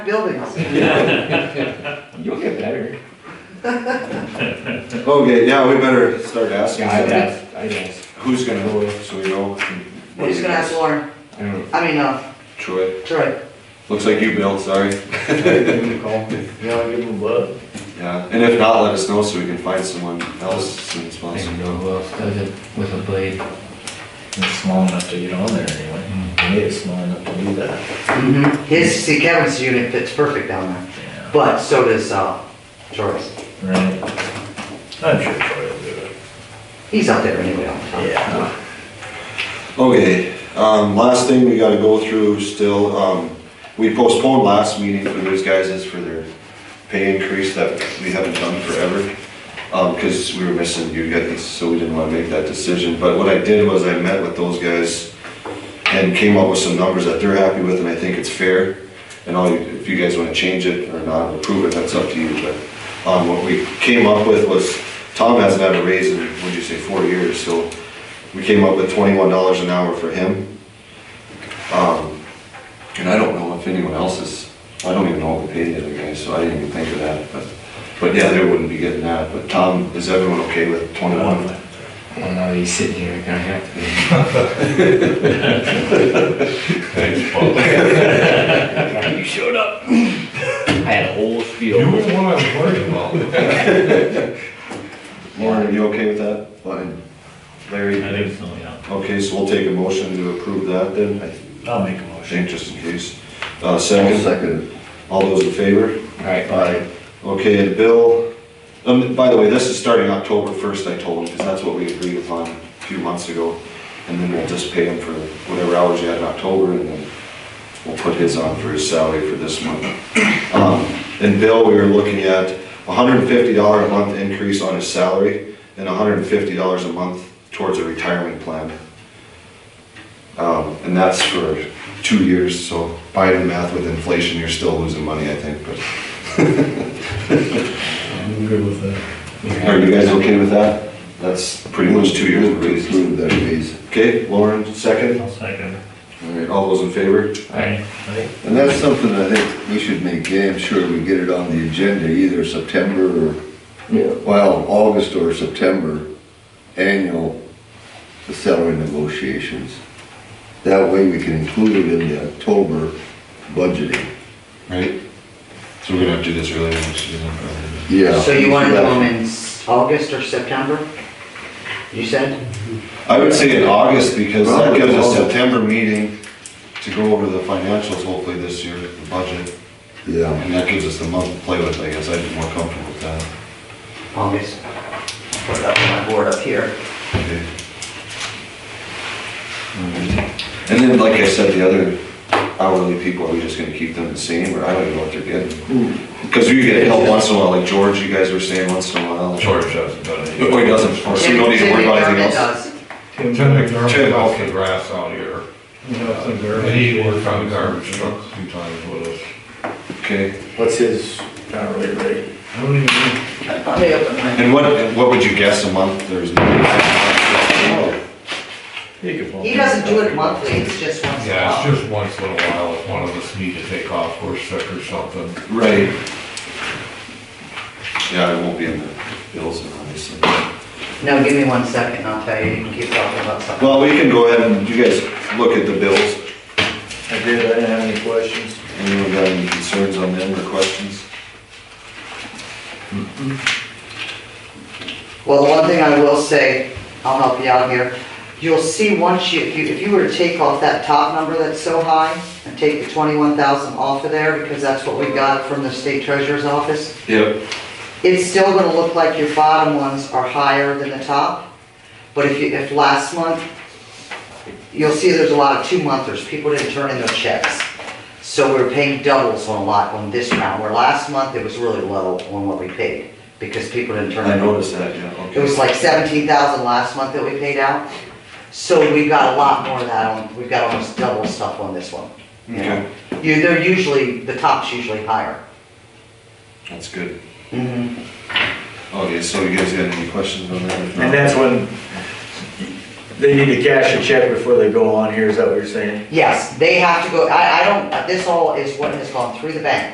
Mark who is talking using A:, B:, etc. A: buildings.
B: You'll get better.
C: Okay, yeah, we better start asking
B: Yeah, I'd
C: them
B: ask, I'd ask.
C: who's gonna go, so we know.
A: He's gonna ask Lauren,
B: I don't,
A: I mean, uh,
C: Troy,
A: Troy.
C: looks like you built, sorry.
B: give him a call. Yeah, I'll give him a buzz.
C: Yeah, and if not, let us know so we can find someone else as soon as
B: I don't
C: possible.
B: know who else does it with a blade.
D: It's small enough to get on there anyway. It is small enough to do that.
A: Mhm. His, see Kevin's unit fits perfect down there,
D: Yeah.
A: but so does, uh, Troy's.
D: Right. I'm sure Troy will do it.
A: He's up there anyway all the time.
D: Yeah.
C: Okay, um, last thing we gotta go through still, um, we postponed last meeting for those guys is for their pay increase that we haven't done forever. Um, cause we were missing you guys, so we didn't wanna make that decision, but what I did was I met with those guys and came up with some numbers that they're happy with and I think it's fair. And all, you- if you guys wanna change it or not, approve it, that's up to you, but, um, what we came up with was, Tom hasn't had a raise in, what'd you say, four years, so we came up with twenty-one dollars an hour for him. Um, and I don't know if anyone else is, I don't even know what we paid the other guy, so I didn't even think of that, but, but yeah, they wouldn't be getting that, but Tom, is everyone okay with twenty-one?
B: Well, now he's sitting here, gonna have to be.
E: Thanks, Paul.
B: You showed up. I had a whole
E: You
B: spiel.
E: were the one I was worried about.
C: Lauren, are you okay with that? Fine. Larry?
E: I think so, yeah.
C: Okay, so we'll take a motion to approve that then, I
D: I'll make a motion.
C: think, just in case. Uh, second? Second. All those in favor?
B: Alright,
C: Aye. Okay, and Bill, um, by the way, this is starting October first, I told him, because that's what we agreed upon a few months ago. And then we'll just pay him for whatever hours he had in October, and then we'll put his on for his salary for this month. Um, and Bill, we were looking at hundred and fifty dollar a month increase on his salary, and hundred and fifty dollars a month towards a retirement plan. Um, and that's for two years, so by the math with inflation, you're still losing money, I think, but.
D: I'm good with that.
C: Are you guys okay with that? That's pretty much two years of raise. Okay, Lauren, second.
E: I'll second.
C: All right, all those in favor?
E: Aye.
F: And that's something I think we should make damn sure we get it on the agenda either September or,
B: Yeah.
F: well, August or September, annual the salary negotiations. That way we can include it in the October budgeting.
C: Right. So we're gonna have to do this really next year then, probably.
F: Yeah.
A: So you wanna do them in s- August or September? You said?
C: I would say in August because that gives us September meeting to go over the financials hopefully this year, the budget.
F: Yeah,
C: And that gives us a month to play with, I guess. I'd be more comfortable with that.
A: August. Put it up on my board up here.
C: Okay. Mm-hmm. And then, like I said, the other hourly people, are we just gonna keep them the same, or I don't even know what they're getting? Because we get help once in a while, like George, you guys were saying once in a while.
E: George doesn't do
C: Oh, he
E: anything.
C: doesn't, so we don't need to worry about anything else.
E: Tim McDermott
C: Tim.
E: cuts the grass out here. And he worked on the garbage truck a few times with us.
C: Okay,
D: What's his hourly rate?
E: I don't even know.
A: Probably open my.
C: and what, and what would you guess a month, there's no.
D: He could bump
A: He doesn't do it
D: up.
A: monthly, it's just once in a
E: Yeah,
A: while.
E: it's just once in a while if one of us need to take off, we're sick or something.
C: Right. Yeah, it won't be in the bills, obviously.
A: No, give me one second, I'll tell you, you can keep talking about something.
C: Well, we can go ahead and, you guys look at the bills.
D: I did, I didn't have any questions.
C: Anyone got any concerns on them or questions?
A: Well, the one thing I will say, I'll help you out here, you'll see once you, if you, if you were to take off that top number that's so high and take the twenty-one thousand off of there, because that's what we got from the state treasurer's office,
C: Yep.
A: it's still gonna look like your bottom ones are higher than the top. But if you, if last month, you'll see there's a lot of two-monthers, people didn't turn in their checks. So we were paying doubles on a lot on this round, where last month it was really low on what we paid, because people didn't turn in.
C: I noticed that, yeah,
A: It was
C: okay.
A: like seventeen thousand last month that we paid out, so we've got a lot more of that on, we've got almost double stuff on this one. you know.
C: Okay,
A: You, they're usually, the top's usually higher.
C: that's good.
A: Mhm.
C: Okay, so you guys got any questions on that? If not-
D: And that's when they need to cash a check before they go on here, is that what you're saying?
A: Yes, they have to go, I, I don't, this all is what has gone through the bank.